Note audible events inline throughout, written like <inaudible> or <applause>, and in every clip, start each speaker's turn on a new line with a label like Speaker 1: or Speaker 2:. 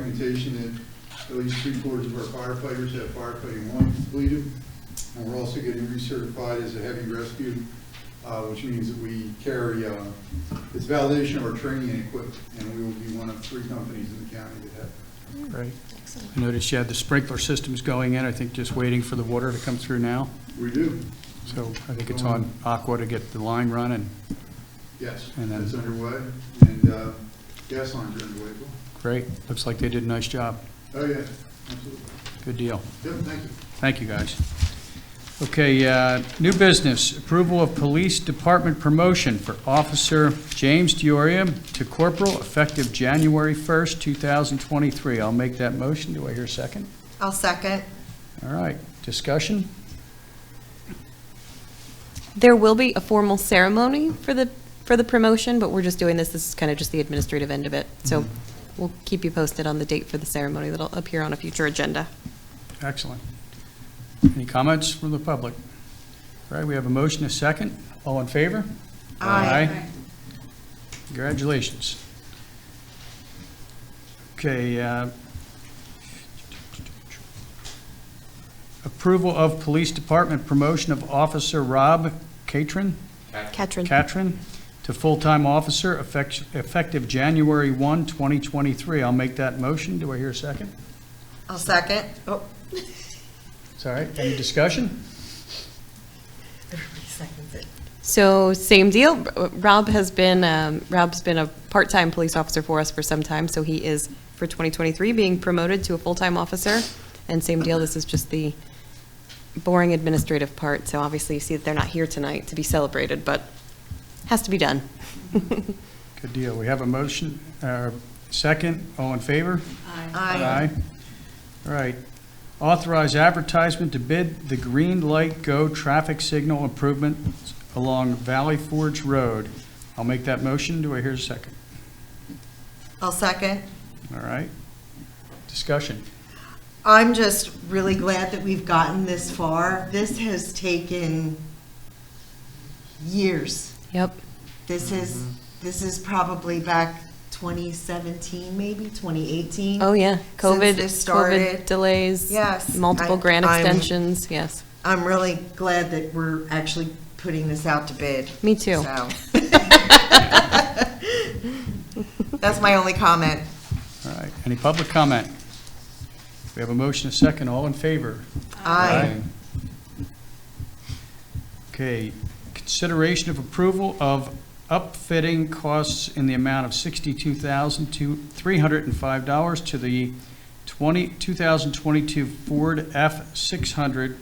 Speaker 1: documentation that at least three quarters of our firefighters have firefighting one completed. And we're also getting recertified as a heavy rescue, uh, which means that we carry, uh, it's validation of our training and equipment, and we will be one of three companies in the county that have.
Speaker 2: Great. I noticed you had the sprinkler systems going in, I think just waiting for the water to come through now.
Speaker 1: We do,
Speaker 2: So I think it's on Aqua to get the line running.
Speaker 1: yes,
Speaker 2: And then-
Speaker 1: that's underway, and uh, gas lines are underway. as well.
Speaker 2: Great. Looks like they did a nice job.
Speaker 1: Oh, yeah, absolutely.
Speaker 2: Good deal.
Speaker 1: Yep, thank you.
Speaker 2: Thank you, guys. Okay, uh, new business, approval of police department promotion for Officer James Dioria to corporal effective January 1st, 2023. I'll make that motion. Do I hear a second?
Speaker 3: I'll second.
Speaker 2: All right, discussion?
Speaker 4: There will be a formal ceremony for the, for the promotion, but we're just doing this, this is kind of just the administrative end of it. So we'll keep you posted on the date for the ceremony that'll appear on a future agenda.
Speaker 2: Excellent. Any comments from the public? All right, we have a motion, a second. All in favor?
Speaker 3: Aye.
Speaker 2: Congratulations. Okay. uh, Approval of Police Department promotion of Officer Rob Catron,
Speaker 4: Katrin?
Speaker 2: Catron to full-time officer effect- effective January 1, 2023. I'll make that motion. Do I hear a second?
Speaker 3: I'll second. Oh,
Speaker 2: It's all right. Any discussion?
Speaker 3: everybody seconds it.
Speaker 4: So same deal. Rob has been, um, Rob's been a part-time police officer for us for some time, so he is, for 2023, being promoted to a full-time officer. And same deal, this is just the boring administrative part. So obviously, you see that they're not here tonight to be celebrated, but has to be done. <laughs>
Speaker 2: Good deal. We have a motion, uh, second, all in favor?
Speaker 3: Aye.
Speaker 2: All right. Authorize advertisement to bid the green light go traffic signal improvements along Valley Forge Road. I'll make that motion. Do I hear a second?
Speaker 3: I'll second.
Speaker 2: All right. Discussion.
Speaker 3: I'm just really glad that we've gotten this far. This has taken years.
Speaker 4: Yep.
Speaker 3: This is, this is probably back 2017, maybe 2018.
Speaker 4: Oh, yeah. COVID,
Speaker 3: Since this
Speaker 4: COVID
Speaker 3: started.
Speaker 4: delays.
Speaker 3: Yes.
Speaker 4: Multiple
Speaker 3: I-
Speaker 4: grant
Speaker 3: I'm-
Speaker 4: extensions, yes.
Speaker 3: I'm really glad that we're actually putting this out to bid.
Speaker 4: Me too. <laughs>
Speaker 3: So. That's my only comment.
Speaker 2: All right. Any public comment? We have a motion, a second, all in favor?
Speaker 3: Aye.
Speaker 2: Okay, consideration of approval of upfitting costs in the amount of sixty-two thousand to three hundred and five dollars to the twenty, two thousand twenty-two Ford F six hundred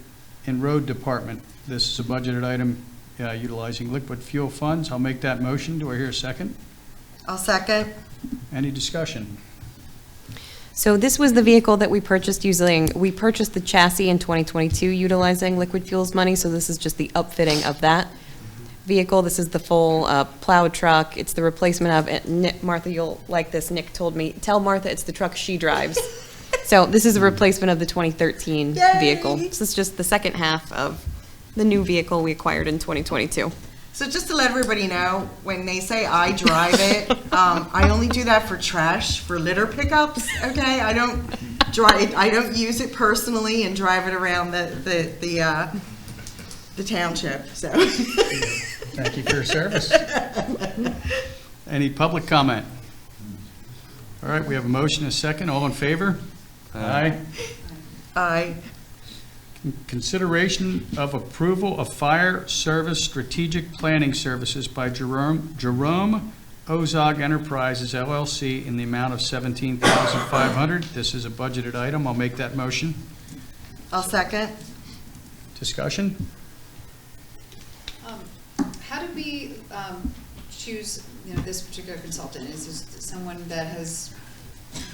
Speaker 2: in road department. This is a budgeted item uh, utilizing liquid fuel funds. I'll make that motion. Do I hear a second?
Speaker 3: I'll second.
Speaker 2: Any discussion?
Speaker 4: So this was the vehicle that we purchased using, we purchased the chassis in 2022 utilizing liquid fuels money, so this is just the upfitting of that vehicle. This is the full uh, plow truck. It's the replacement of, it. Ni- Martha, you'll like this, Nick told me, tell Martha it's the truck
Speaker 3: <laughs>
Speaker 4: she <laughs> drives. So this is a replacement of the 2013 vehicle.
Speaker 3: Yay!
Speaker 4: This is just the second half of the new vehicle we acquired in 2022.
Speaker 3: So just to let everybody know, when they say I drive it, um, I only do that for trash, for litter pickups. Okay, I don't drive, I don't use it personally and drive it around the the the, uh, the township. So <laughs>
Speaker 2: Thank you for your service. <laughs> Any public comment? All right, we have a motion, a second. All in favor? Aye.
Speaker 3: I
Speaker 2: Consideration of approval of fire service strategic planning services by Jerome, Jerome Ozog Enterprises LLC in the amount of $17,500. This is a budgeted item. I'll make that motion.
Speaker 3: I'll second.
Speaker 2: Discussion?
Speaker 5: Um, How do we um, choose, you know, this particular consultant? Is this someone that has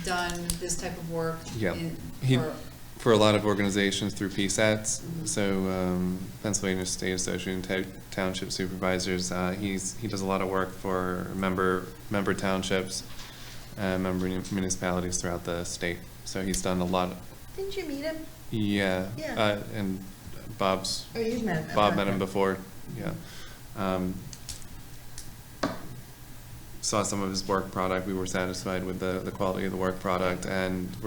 Speaker 5: done this type of work?
Speaker 6: Yeah.
Speaker 5: in-
Speaker 6: He-
Speaker 5: for-
Speaker 6: for a lot of organizations through
Speaker 3: Mm-hmm.
Speaker 6: PSATs. So um, Pennsylvania State Association of Ta- Township Supervisors, uh, he's, he does a lot of work for member, member townships, uh, member municipalities throughout the state. So he's done a lot,
Speaker 3: Didn't you meet him?
Speaker 6: yeah.
Speaker 3: Yeah.
Speaker 6: uh, And Bob's,
Speaker 3: Oh, you met him.
Speaker 6: Bob met him
Speaker 3: Okay.
Speaker 6: before, yeah. Um, saw some of his work product. We were satisfied with the, the quality of the work product and